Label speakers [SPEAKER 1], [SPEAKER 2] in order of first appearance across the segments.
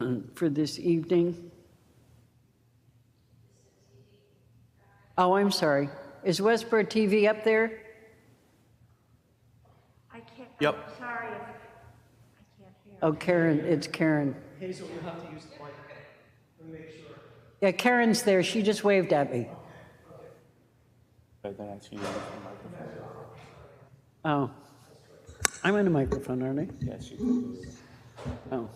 [SPEAKER 1] um, for this evening? Oh, I'm sorry. Is Westboro TV up there?
[SPEAKER 2] I can't,
[SPEAKER 3] Yep.
[SPEAKER 2] I'm sorry if I can't hear.
[SPEAKER 1] Oh, Karen, it's Karen. Hazel, you'll have to use the mic. Let me make sure. Yeah, Karen's there. She just waved at me.
[SPEAKER 3] But then I see you on the microphone.
[SPEAKER 1] Oh. I'm on a microphone, aren't I?
[SPEAKER 3] Yes, you.
[SPEAKER 1] Oh.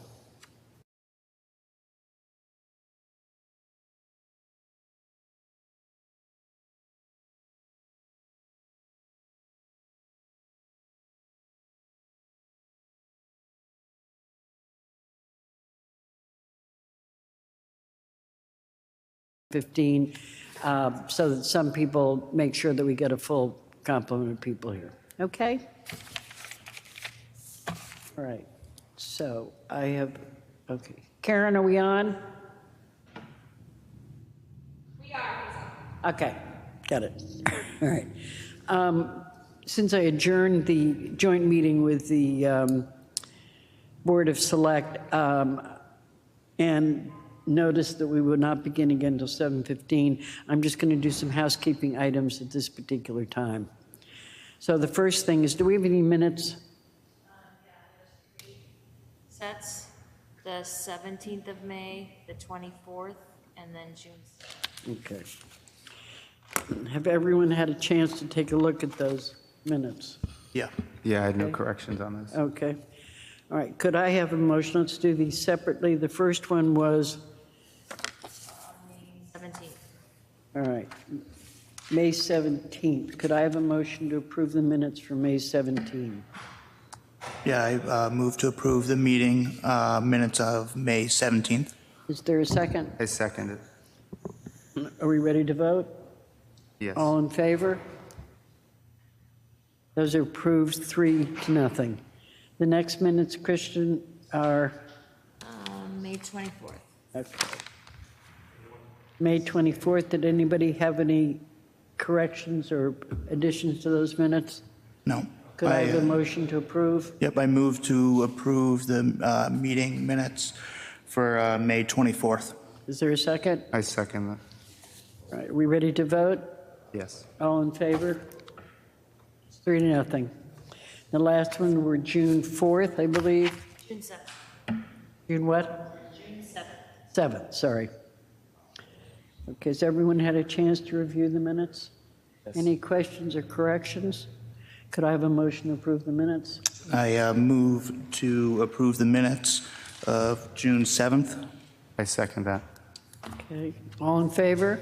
[SPEAKER 1] Fifteen, uh, so that some people make sure that we get a full complement of people here. Okay? All right, so I have, okay. Karen, are we on? We are. Okay, got it. All right. Um, Since I adjourned the joint meeting with the um, Board of Select um, and noticed that we would not begin again until 7:15, I'm just going to do some housekeeping items at this particular time. So the first thing is, do we have any minutes?
[SPEAKER 4] Sets the 17th of May, the 24th, and then June.
[SPEAKER 1] Okay. Have everyone had a chance to take a look at those minutes?
[SPEAKER 3] Yeah.
[SPEAKER 5] Yeah, I had no corrections on this.
[SPEAKER 1] Okay. All right, could I have a motion? Let's do these separately. The first one was,
[SPEAKER 4] 17th.
[SPEAKER 1] all right, May 17th. Could I have a motion to approve the minutes for May 17th?
[SPEAKER 6] Yeah, I uh, move to approve the meeting uh, minutes of May 17th.
[SPEAKER 1] Is there a second?
[SPEAKER 5] I second it.
[SPEAKER 1] Are we ready to vote?
[SPEAKER 5] Yes.
[SPEAKER 1] All in favor? Those are approved, three to nothing. The next minutes, Christian, are,
[SPEAKER 4] Um, May 24th.
[SPEAKER 1] okay. May 24th, did anybody have any corrections or additions to those minutes?
[SPEAKER 6] No.
[SPEAKER 1] Could I have
[SPEAKER 6] uh,
[SPEAKER 1] a motion to approve?
[SPEAKER 6] Yep, I move to approve the uh, meeting minutes for uh, May 24th.
[SPEAKER 1] Is there a second?
[SPEAKER 5] I second that.
[SPEAKER 1] All right, are we ready to vote?
[SPEAKER 5] Yes.
[SPEAKER 1] All in favor? It's Three to nothing. The last one were June 4th, I believe.
[SPEAKER 4] June 7th.
[SPEAKER 1] June what?
[SPEAKER 4] June 7th.
[SPEAKER 1] 7th, sorry. Okay, has everyone had a chance to review the minutes? Any questions or corrections? Could I have a motion to approve the minutes?
[SPEAKER 6] I uh, move to approve the minutes of June 7th.
[SPEAKER 5] I second that.
[SPEAKER 1] Okay, all in favor?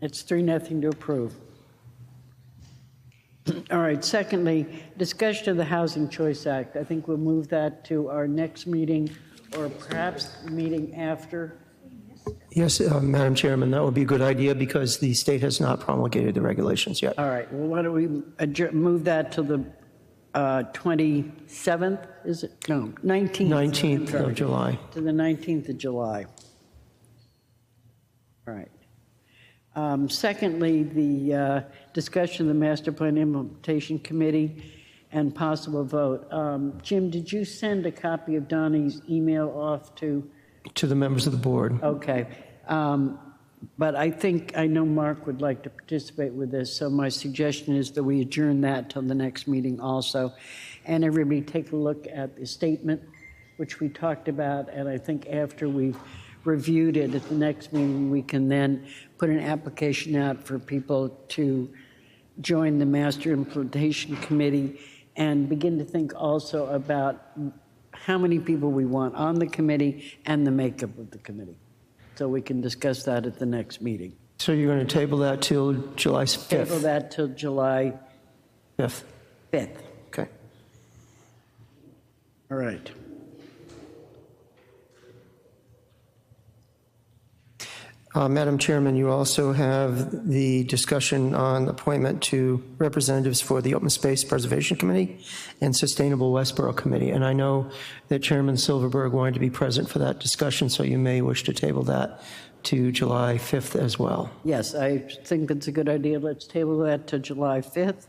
[SPEAKER 1] It's three, nothing to approve. All right, secondly, discussion of the Housing Choice Act. I think we'll move that to our next meeting, or perhaps the meeting after.
[SPEAKER 7] Yes, uh, Madam Chairman, that would be a good idea because the state has not promulgated the regulations yet.
[SPEAKER 1] All right, well, why don't we adjour- move that to the uh, 27th, is it? No, 19th.
[SPEAKER 7] 19th
[SPEAKER 1] I'm sorry.
[SPEAKER 7] of July.
[SPEAKER 1] To the 19th of July. All right. Um, Secondly, the uh, discussion of the Master Plan Implementation Committee and possible vote. Um, Jim, did you send a copy of Donnie's email off to?
[SPEAKER 7] To the members of the board,
[SPEAKER 1] Okay. um, But I think, I know Mark would like to participate with this, so my suggestion is that we adjourn that till the next meeting also. And everybody take a look at the statement, which we talked about, and I think after we've reviewed it at the next meeting, we can then put an application out for people to join the Master Implementation Committee and begin to think also about how many people we want on the committee and the makeup of the committee. So we can discuss that at the next meeting.
[SPEAKER 7] so you're going to table that till July
[SPEAKER 1] Table
[SPEAKER 7] 5th?
[SPEAKER 1] that till July
[SPEAKER 7] 5th,
[SPEAKER 1] 5th.
[SPEAKER 7] okay.
[SPEAKER 1] All right.
[SPEAKER 7] Uh, Madam Chairman, you also have the discussion on appointment to representatives for the Open Space Preservation Committee and Sustainable Westboro Committee. And I know that Chairman Silverberg wanted to be present for that discussion, so you may wish to table that to July 5th as well.
[SPEAKER 1] Yes, I think it's a good idea. Let's table that to July 5th.